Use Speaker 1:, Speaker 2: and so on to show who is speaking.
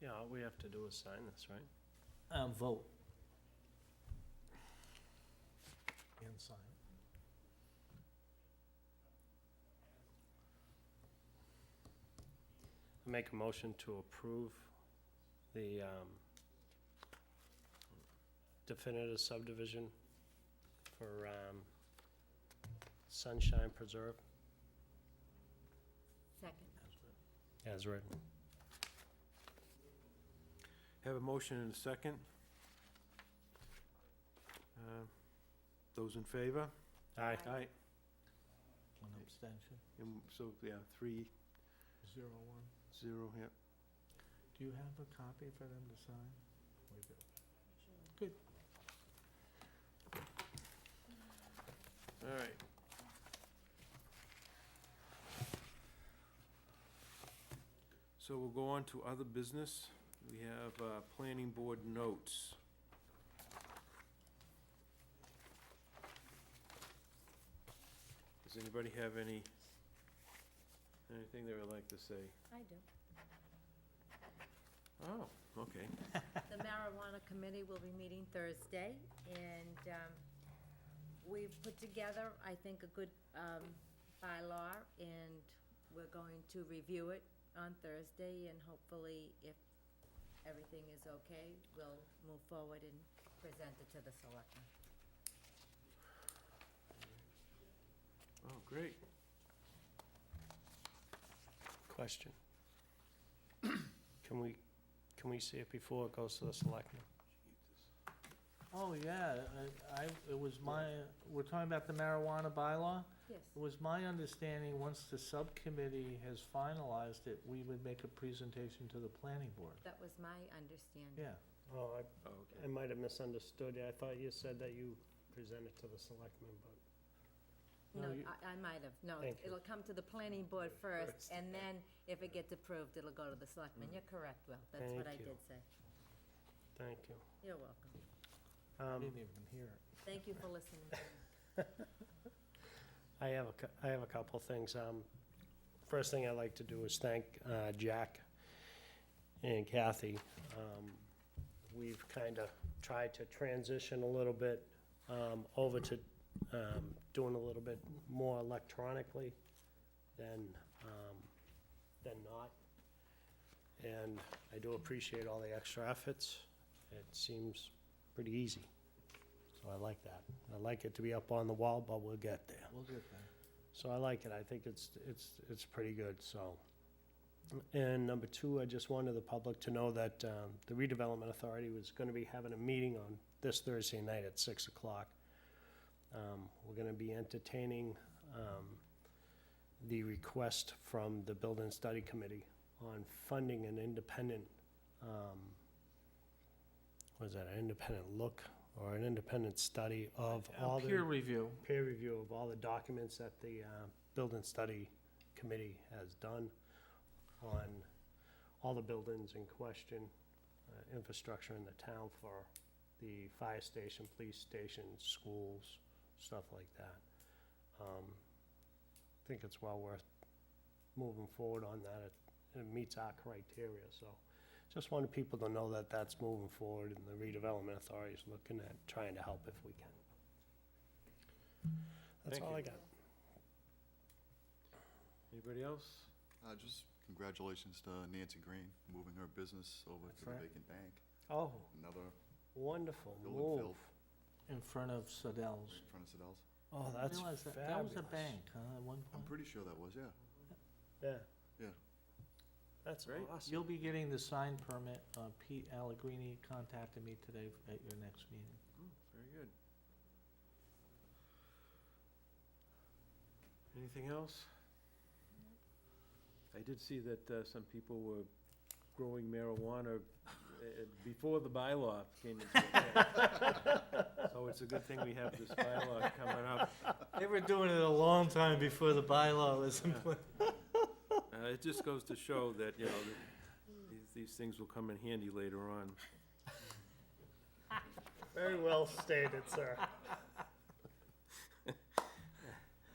Speaker 1: Yeah, all we have to do is sign this, right?
Speaker 2: Um, vote.
Speaker 3: and sign.
Speaker 1: Make a motion to approve the um, definitive subdivision for um, Sunshine Preserve
Speaker 4: Second.
Speaker 1: as written.
Speaker 3: Have a motion and a second. Uh, Those in favor?
Speaker 1: Aye.
Speaker 3: Aye.
Speaker 2: One abstention.
Speaker 3: And so, yeah, three,
Speaker 2: Zero one.
Speaker 3: zero, yeah.
Speaker 2: Do you have a copy for them to sign?
Speaker 3: All right. So we'll go on to other business. We have uh, planning board notes. Does anybody have any, anything they would like to say?
Speaker 4: I do.
Speaker 3: Oh, okay.
Speaker 4: The marijuana committee will be meeting Thursday, and um, we've put together, I think, a good um, bylaw, and we're going to review it on Thursday, and hopefully, if everything is okay, we'll move forward and present it to the selectmen.
Speaker 3: Oh, great.
Speaker 1: Question. Can we, can we see it before it goes to the selectmen?
Speaker 2: Oh, yeah, I, I, it was my, we're talking about the marijuana bylaw?
Speaker 4: Yes.
Speaker 2: It was my understanding, once the subcommittee has finalized it, we would make a presentation to the planning board.
Speaker 4: That was my understanding.
Speaker 2: Yeah,
Speaker 1: Oh, I
Speaker 3: Oh,
Speaker 1: I
Speaker 3: okay.
Speaker 1: might have misunderstood you. I thought you said that you presented to the selectmen, but,
Speaker 4: No,
Speaker 2: No, you-
Speaker 4: I, I might have, no,
Speaker 1: Thank you.
Speaker 4: it'll come to the planning board first,
Speaker 1: First. Mm.
Speaker 4: and then if it gets approved, it'll go to the selectmen. You're correct, Will, that's what I
Speaker 1: Thank you.
Speaker 4: did say.
Speaker 1: thank you.
Speaker 4: You're welcome.
Speaker 2: I
Speaker 1: Um,
Speaker 2: didn't even hear it.
Speaker 4: Thank you for listening.
Speaker 1: I have a, cou- I have a couple things. Um, first thing I'd like to do is thank, uh, Jack and Kathy. Um, we've kind of tried to transition a little bit, um, over to, um, doing a little bit more electronically than, um, than not. And I do appreciate all the extra efforts. It seems pretty easy. So I like that. I like it to be up on the wall, but we'll get there.
Speaker 2: We'll get that.
Speaker 1: So I like it, I think it's, it's, it's pretty good, so. And number two, I just wanted the public to know that um, the redevelopment authority was gonna be having a meeting on this Thursday night at six o'clock. Um, We're gonna be entertaining um, the request from the Building Study Committee on funding an independent, um, what is that, an independent look or an independent study of
Speaker 2: A
Speaker 1: all the
Speaker 2: Peer review.
Speaker 1: peer review of all the documents that the uh, Building Study Committee has done on all the buildings in question, uh, infrastructure in the town for the fire station, police station, schools, stuff like that. Um, I think it's well worth moving forward on that. It- It meets our criteria, so just wanted people to know that that's moving forward and the redevelopment authority is looking at trying to help if we can. That's
Speaker 3: Thank
Speaker 1: all
Speaker 3: you.
Speaker 1: I got.
Speaker 3: Anybody else?
Speaker 5: Uh, just congratulations to Uh, Nancy Green, moving her business over
Speaker 2: That's
Speaker 5: to the
Speaker 2: right.
Speaker 5: vacant bank.
Speaker 1: Oh,
Speaker 5: Another
Speaker 1: wonderful
Speaker 5: building
Speaker 1: move.
Speaker 5: filled
Speaker 2: in front of Sodell's.
Speaker 5: in front of Sedell's.
Speaker 1: Oh, that's
Speaker 2: Realize
Speaker 1: fabulous.
Speaker 2: that- That was a bank, huh, at one point?
Speaker 5: I'm pretty sure that was, yeah.
Speaker 1: Yeah.
Speaker 5: Yeah.
Speaker 1: That's
Speaker 3: Great.
Speaker 1: awesome.
Speaker 2: You'll be getting the sign permit. Uh, Pete Allegrini contacted me today at your next meeting.
Speaker 3: Oh, Very good. Anything else? I did see that uh, some people were growing marijuana uh, before the bylaw came into effect. So it's a good thing we have this bylaw coming up.
Speaker 2: They were doing it a long time before the bylaw was in place.
Speaker 3: Uh, It just goes to show that, you know, that these, these things will come in handy later on.
Speaker 1: Very well stated, sir.